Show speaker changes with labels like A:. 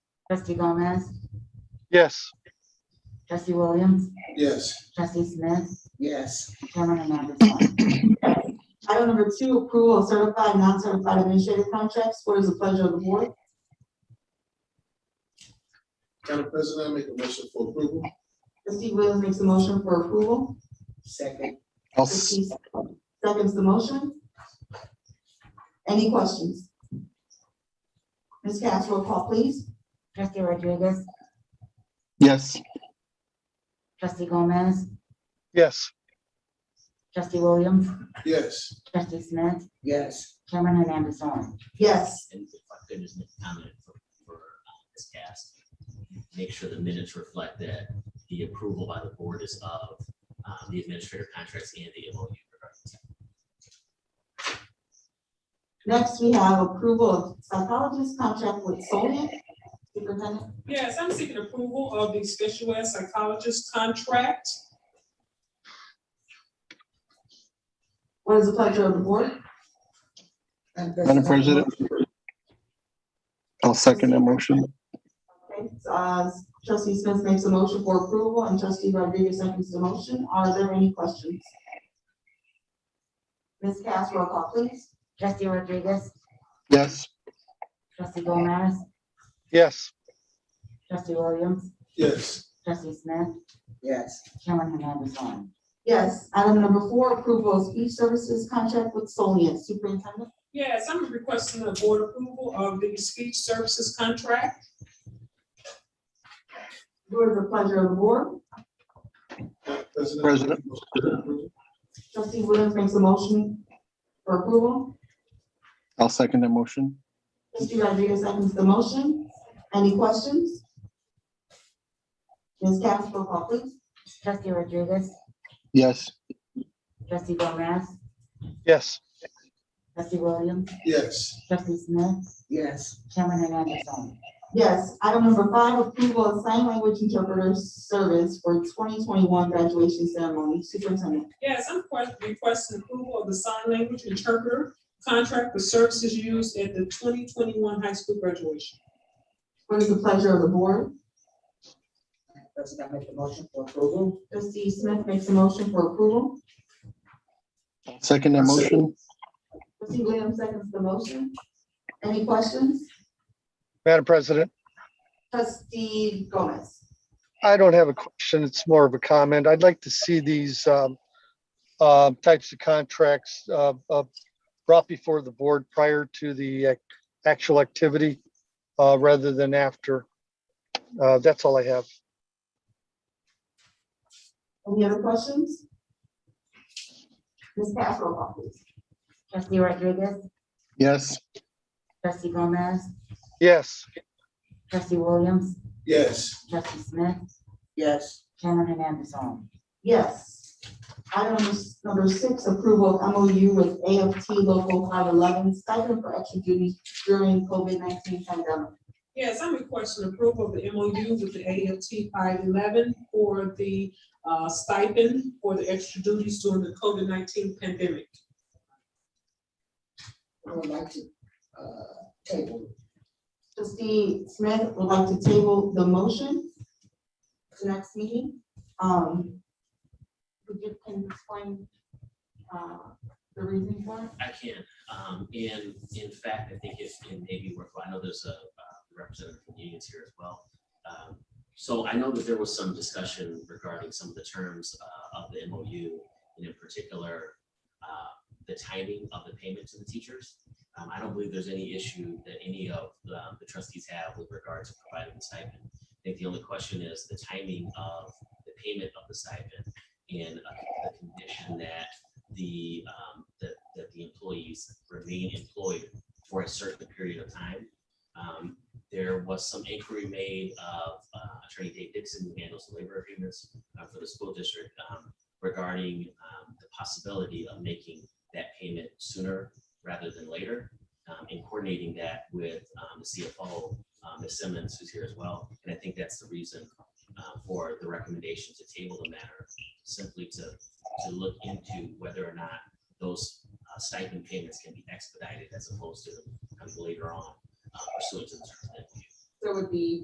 A: Trustee Gomez,
B: Yes.
A: trustee Williams,
C: Yes.
A: trustee Smith,
C: Yes.
A: chairman Hernandez.
D: Item number two, approval of certified, and non-certified administrative contracts. What is the pleasure of the board?
C: Madam President, I make a motion for approval.
D: Trustee Williams makes a motion for approval.
C: Second.
B: I'll s-
D: Trustee Seconds the motion. Any questions? Ms. Cass, roll call, please.
A: Trustee Rodriguez,
B: Yes.
A: trustee Gomez,
B: Yes.
A: trustee Williams,
C: Yes.
A: trustee Smith,
C: Yes.
A: chairman Hernandez on.
D: Yes.
E: And if I could just make a comment for, for uh, Ms. Cass, make sure the minutes reflect that the approval by the board is of uh, the administrative contracts and the MOU.
D: Next, we have approval of psychologist contract with Soliant. Superintendent,
F: Yes, I'm seeking approval of the special ed psychologist contract.
D: what is the pleasure of the board?
B: Madam President. I'll second that motion.
D: Okay, uh, trustee Smith makes a motion for approval and trustee Rodriguez seconds the motion. Are there any questions? Ms. Cass, roll call, please.
A: Trustee Rodriguez,
B: Yes.
A: trustee Gomez,
B: Yes.
A: trustee Williams,
C: Yes.
A: trustee Smith,
C: Yes.
A: chairman Hernandez on.
D: Yes, item number four, approval of speech services contract with Soliant. Superintendent,
F: Yes, I'm requesting the board approval of the speech services contract.
D: what is the pleasure of the board?
C: Madam President.
B: President.
D: Trustee Williams makes a motion for approval.
B: I'll second that motion.
D: Trustee Rodriguez seconds the motion. Any questions? Ms. Cass, roll call, please.
A: Trustee Rodriguez,
B: Yes.
A: trustee Gomez,
B: Yes.
A: trustee Williams,
C: Yes.
A: trustee Smith,
C: Yes.
A: chairman Hernandez on.
D: Yes, item number five, approval of sign language interpreter service for twenty twenty-one graduation ceremony. Superintendent,
F: Yes, I'm que- requesting approval of the sign language interpreter contract for services used at the twenty twenty-one high school graduation.
D: what is the pleasure of the board?
C: President, I make a motion for approval.
D: Trustee Smith makes a motion for approval.
B: I'll Second that motion.
D: Trustee Williams seconds the motion. Any questions?
G: Madam President,
D: Trustee Gomez.
G: I don't have a question. It's more of a comment. I'd like to see these um, uh, types of contracts uh, uh, brought before the board prior to the ac- actual activity uh, rather than after. Uh, That's all I have.
D: Any other questions? Ms. Cass, roll call, please.
A: Trustee Rodriguez,
B: Yes.
A: trustee Gomez,
G: Yes,
A: trustee Williams,
C: Yes.
A: trustee Smith,
C: Yes.
A: chairman Hernandez on.
D: Yes. Item s- number six, approval of MOU with AFT Local five eleven stipend for extra duties during COVID nineteen pandemic.
F: Yes, I'm requesting approval of the MOU with the AFT five eleven for the uh, stipend for the extra duties during the COVID nineteen pandemic.
H: I would like to, uh, table.
D: Trustee Smith would like to table the motion to next meeting. Um, would you can explain, uh, the reason for it?
E: I can, um, and in fact, I think it, it may be worthwhile, I know there's a uh, representative from unions here as well. Um, So I know that there was some discussion regarding some of the terms, uh, of the MOU, and in particular, uh, the timing of the payment to the teachers. Um, I don't believe there's any issue that any of the the trustees have with regard to providing the stipend. I think the only question is the timing of the payment of the stipend and uh, the condition that the, um, that, that the employees remain employed for a certain period of time. Um, there was some inquiry made of uh, Attorney Dave Dixon, who handles the labor agreements uh, for the school district, um, regarding, um, the possibility of making that payment sooner rather than later, um, and coordinating that with, um, the CFO, uh, Ms. Simmons, who's here as well. And I think that's the reason, uh, for the recommendation to table the matter, simply to to look into whether or not those uh, stipend payments can be expedited as opposed to coming later on uh, pursuant to the terms that we
D: There would be